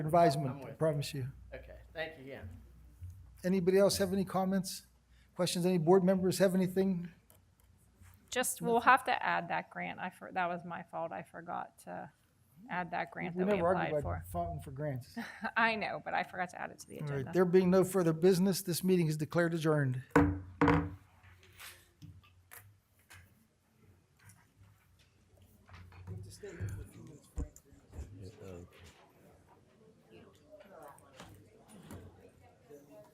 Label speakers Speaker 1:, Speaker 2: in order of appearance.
Speaker 1: advisement,
Speaker 2: I'm
Speaker 1: I
Speaker 2: with-
Speaker 1: promise you.
Speaker 2: Okay, thank you again.
Speaker 1: Anybody else have any comments, questions? Any board members have anything?
Speaker 3: Just, we'll have to add that grant. I, for- that was my fault. I forgot to add that grant
Speaker 1: We
Speaker 3: that we
Speaker 1: never
Speaker 3: applied
Speaker 1: argue about
Speaker 3: for.
Speaker 1: fighting for grants.
Speaker 3: I know, but I forgot to add it to the
Speaker 1: All right,
Speaker 3: agenda.
Speaker 1: there being no further business, this meeting is declared adjourned.